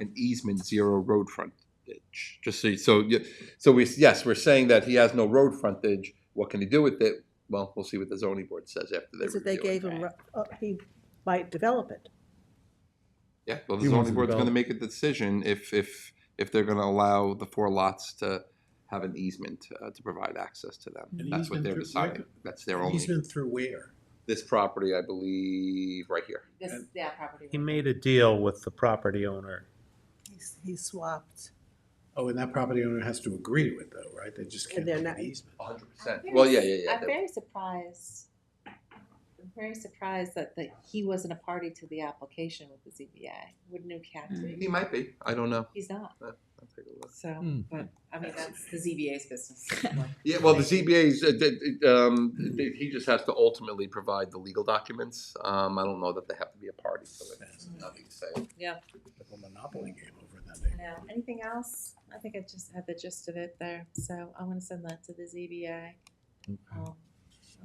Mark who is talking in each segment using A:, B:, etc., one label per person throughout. A: an easement zero road frontage. Just so, you- so, you- so we, yes, we're saying that he has no road frontage. What can he do with it? Well, we'll see what the zoning board says after they
B: Is that they
A: review it.
B: gave him, ru- uh, he might develop it.
A: Yeah, well, the
C: He wants
A: zoning
C: to
A: board's gonna
C: develop.
A: make a decision if, if, if they're gonna allow the four lots to have an easement uh, to provide access to them.
D: An
A: That's what
D: easement
A: they're
D: through- where
A: deciding. That's their
D: He's
A: only,
D: been through where?
A: this property, I believe, right here.
E: This, yeah, property.
C: He made a deal with the property owner.
B: He's- He swapped.
D: Oh, and that property owner has to agree to it though, right? They just can't
B: And they're
D: make
B: not-
D: an easement.
A: hundred
E: I'm
A: percent.
E: very
A: Well, yeah,
E: su-
A: yeah, yeah.
E: I'm very surprised, I'm very surprised that, that he wasn't a party to the application with the ZBA. Wouldn't have had
A: that-
E: to.
A: He might be, I don't know.
E: He's not,
A: I'll take a look.
E: so,
C: Mm. Hmm.
E: but, I mean, that's the ZBA's business.
A: Yeah, well, the ZBA's, uh, d- d- um, d- he just has to ultimately provide the legal documents. Um, I don't know that they have to be a party to it. Nothing to say.
D: Like a monopoly game over that
E: I
D: thing.
E: know. Anything else? I think I just had the gist of it there, so I'm gonna send that to the ZBA. Um, and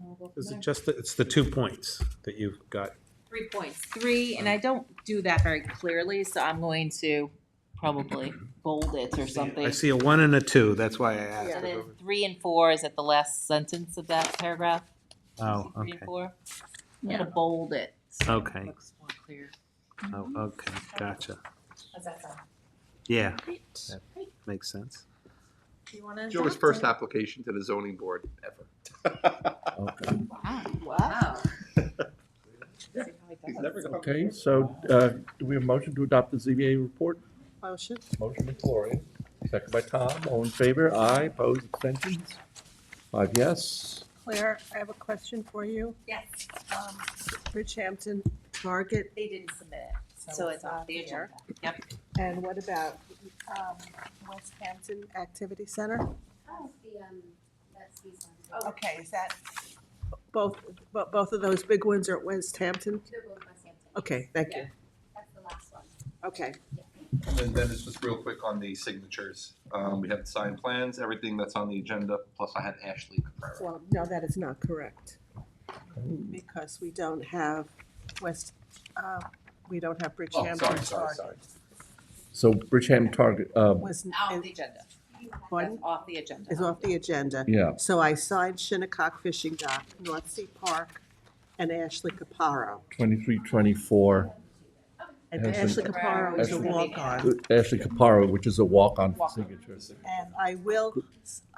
E: we'll go from
C: Is
E: there.
C: it just, the- it's the two points that you've got?
E: Three points, three, and I don't do that very clearly, so I'm going to probably bold it or something.
C: I see a one and a two, that's why I asked.
E: And
C: if it
E: then
C: was-
E: three and four is at the last sentence of that paragraph.
C: Oh,
E: Three and
C: okay.
E: four. I'm gonna bold it. so it
C: Okay.
E: Looks more clear.
C: Oh, okay, gotcha.
E: How's that sound?
C: Yeah,
E: Great.
C: Yeah.
E: Great.
C: makes sense.
E: Do you wanna?
A: Joe's
E: adopt
A: first
E: it?
A: application to the zoning board ever.
E: Wow. See how he
A: He's
E: does.
A: never gonna-
F: Okay, so uh, do we have a motion to adopt the ZBA report?
B: Motion?
F: Motion by Gloria, second by Tom. All in favor? Aye. Opposed? Abstentions? Five yes.
B: Claire, I have a question for you.
E: Yes,
B: Um, Bridgehampton Market,
E: they didn't submit it, so it's off the agenda. Yep.
B: and what about um, West Hampton Activity Center?
G: Oh, the, um, that's these ones.
E: Oh.
B: Okay, is that? Both, bo- both of those big ones are at West Hampton?
G: They're both West Hampton.
B: Okay, thank you.
G: That's the last one.
B: Okay.
A: And then it's just real quick on the signatures. Um, we have the signed plans, everything that's on the agenda, plus I had Ashley prepare.
B: Well, no, that is not correct. Because we don't have West, uh, we don't have
A: Oh,
B: Bridgehampton.
A: sorry, sorry, sorry.
F: So Bridgehampton Target, uh,
B: Was,
E: Off the agenda.
G: You have
B: pardon?
E: That's off the agenda.
B: is off the agenda.
F: yeah.
B: So I signed Shinnecock Fishing Dock, North Sea Park, and Ashley Caparo.
F: 23, 24,
B: And
F: Ashley
B: Ashley Caparo is a
F: Ashley-
B: walk-on.
F: Ashley Caparo, which is a walk-on for
E: Walk-on.
F: signature.
B: And I will,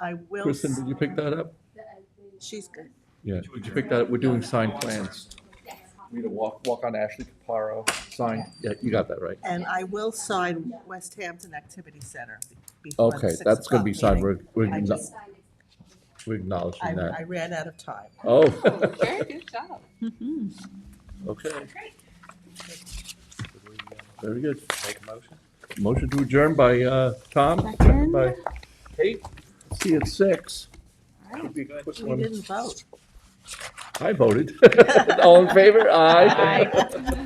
B: I will,
F: Kristen, did you pick that up?
G: the open,
B: she's,
G: uh,
F: Yeah, did you pick that up? We're doing signed plans.
G: Yes.
F: We need a walk, walk-on Ashley Caparo, sign, yeah, you got that right.
B: and I will sign West Hampton Activity Center before the
F: Okay,
B: six
F: that's gonna be
B: o'clock
F: signed.
B: meeting.
F: We're, we're
B: I
F: acknow-
B: just-
G: Signed it.
F: we're acknowledging
B: I, I
F: that.
B: ran out of time.
E: Oh,
F: Oh,
E: Very good job.
F: okay,
E: Great.
F: very good.
C: Make a motion?
F: Motion to adjourn by uh, Tom, second by Kate. See you at six. Should be a quick
B: We
F: one.
B: didn't vote.
F: I voted. All in favor? Aye.